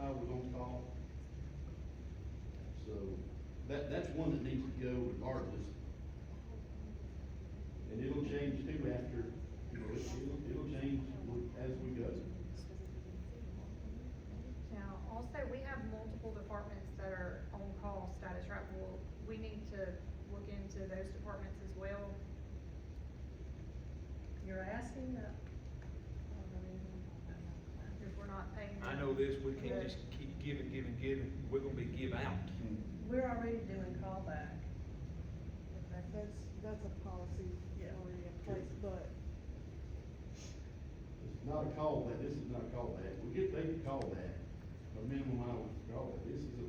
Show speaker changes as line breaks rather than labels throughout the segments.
I was on call. So, that, that's one that needs to go regardless. And it'll change too after, you know, it- it'll, it'll change with- as we go.
Now, also, we have multiple departments that are on-call status, right? Well, we need to look into those departments as well.
You're asking that?
If we're not paying them.
I know this, we can't just keep giving, giving, giving, we're gonna be give out. Mm.
We're already doing callback.
That's, that's a policy
Yeah.
already in place, but
It's not a call that, this is not a call that, we get paid to call that, a minimum hours to call that, this is a,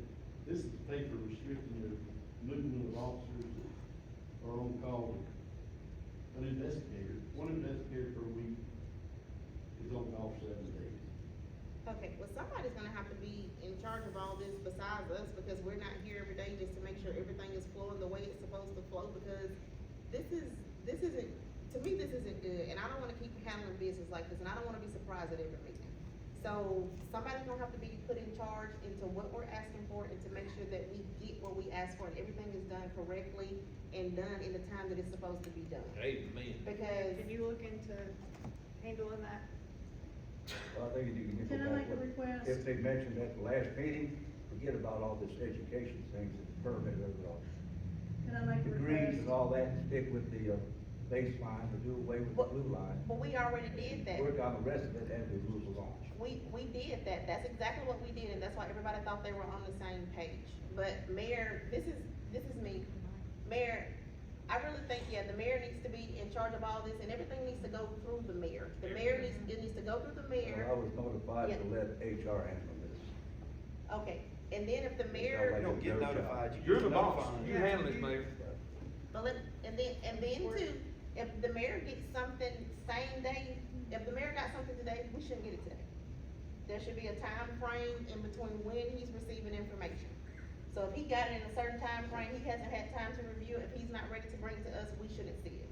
this is paid for restricting the movement of officers that are on call. An investigator, one investigator per week is on call seven days.
Okay, well, somebody's gonna have to be in charge of all this besides us, because we're not here every day just to make sure everything is flowing the way it's supposed to flow, because this is, this isn't, to me, this isn't good, and I don't wanna keep handling business like this, and I don't wanna be surprised at every meeting. So, somebody's gonna have to be put in charge into what we're asking for, and to make sure that we get what we ask for, and everything is done correctly, and done in the time that it's supposed to be done.
Amen.
Because,
Can you look into handling that?
I think you need to
Can
go
I make
back.
a
with-
request?
If they mentioned at the last meeting, forget about all this education things and permit overall.
Can I make a
Degrees and
request?
all that, and stick with the uh, baseline, to do away with the
What-
blue line.
but we already did that.
Work on the rest of it as we move along.
We, we did that, that's exactly what we did, and that's why everybody thought they were on the same page. But mayor, this is, this is me, mayor, I really think, yeah, the mayor needs to be in charge of all this, and everything needs to go through the mayor. The mayor needs, it needs to go through the
So I
mayor,
was notified to
Yeah.
let HR handle this.
okay, and then if the
It's
mayor,
not
You
like
don't
it's
get
their job.
notified, you're the boss, you handle it, mayor.
but let, and then, and then too, if the mayor gets something same day, if the mayor got something today, we shouldn't get it today. There should be a time frame in between when he's receiving information. So if he got it in a certain time frame, he hasn't had time to review, it. if he's not ready to bring it to us, we shouldn't see it.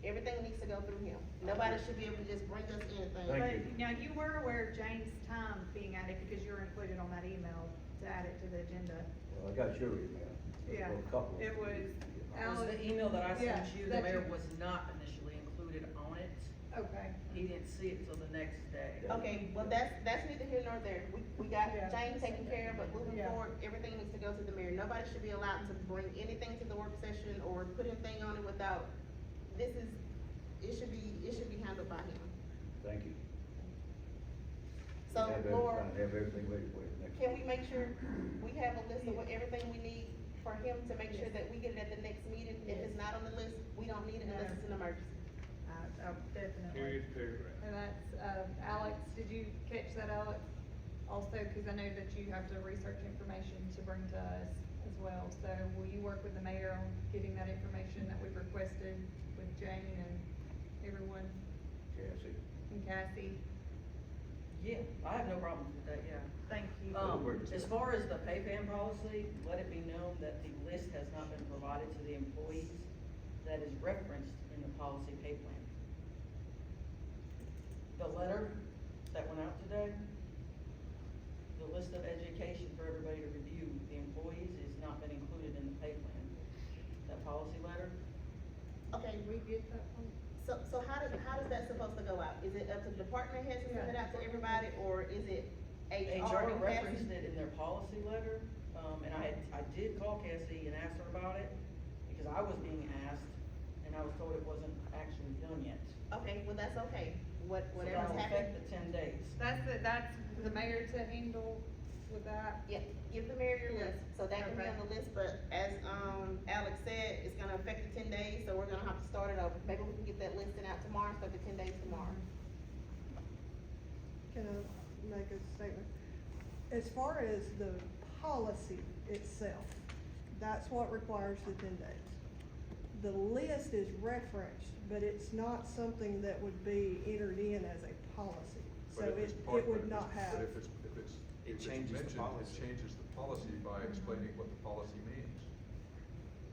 Everything needs to go through him. Nobody should be able to just bring us anything.
Thank
But
you.
Now, you were aware of James' time being added because you were included on that email to add it to the agenda.
Well, I got your email.
Yeah,
Well, A couple. of
it
them.
was
It was
Alan-
the email that I
Yeah,
sent you, the
that you-
mayor was not initially included on it,
Okay.
he didn't see it till the next day.
Okay, well, that's, that's neither here nor there. We, we got
Yeah.
James taken care of, but moving
Yeah.
forward, everything needs to go to the mayor. Nobody should be allowed to bring anything to the work session or put anything on it without, this is, it should be, it should be handled by him.
Thank you.
So,
Have everything-
Laura.
Have everything ready for you next.
Can we make sure we have a list of what, everything we need for him to make sure that we get it at the next meeting? If it's not on the list, we don't need it unless it's an emergency.
I, I definitely.
Period, paragraph.
And that's, uh, Alex, did you catch that, Alex? Also, cause I know that you have to research information to bring to us as well, so will you work with the mayor on getting that information that we've requested with Jane and everyone,
Cassie.
and Cassie?
Yeah, I have no problem with that, yeah.
Thank you.
Um, as far as the pay plan policy, let it be known that the list has not been provided to the employees that is referenced in the policy pay plan. The letter that went out today, the list of education for everybody to review, the employees has not been included in the pay plan. That policy letter,
Okay,
Did we get that one?
so, so how does, how does that supposed to go out? Is it up to the department heads to send it out to everybody, or is it
HR
HR and Cassie?
referenced it in their policy letter, um, and I had, I did call Cassie and asked her about it, because I was being asked, and I was told it wasn't actually done yet.
Okay, well, that's okay, what,
So
whatever's
that'll
happened.
affect the ten days.
That's, the- that's the mayor to handle with that?
Yeah, give the mayor your list, so that can be
Okay.
on the list, but as, um, Alex said, it's gonna affect the ten days, so we're gonna have to start it over. Maybe we can get that listing out tomorrow, start the ten days tomorrow.
can I make a statement? As far as the policy itself, that's what requires the ten days. The list is referenced, but it's not something that would be entered in as a policy. So
But if
it,
it's part-
it would
but if
not
it's-
have.
But if it's, if it's,
It
if it's
changes the
mentioned,
policy.
it changes the policy by explaining what the policy means.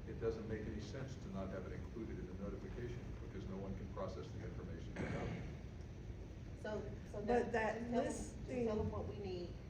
It doesn't make any sense to not have it included in the notification, because no one can process the information without it.
So, so.
But
that-
that
just tell them- just Tell
listing-
them what we need.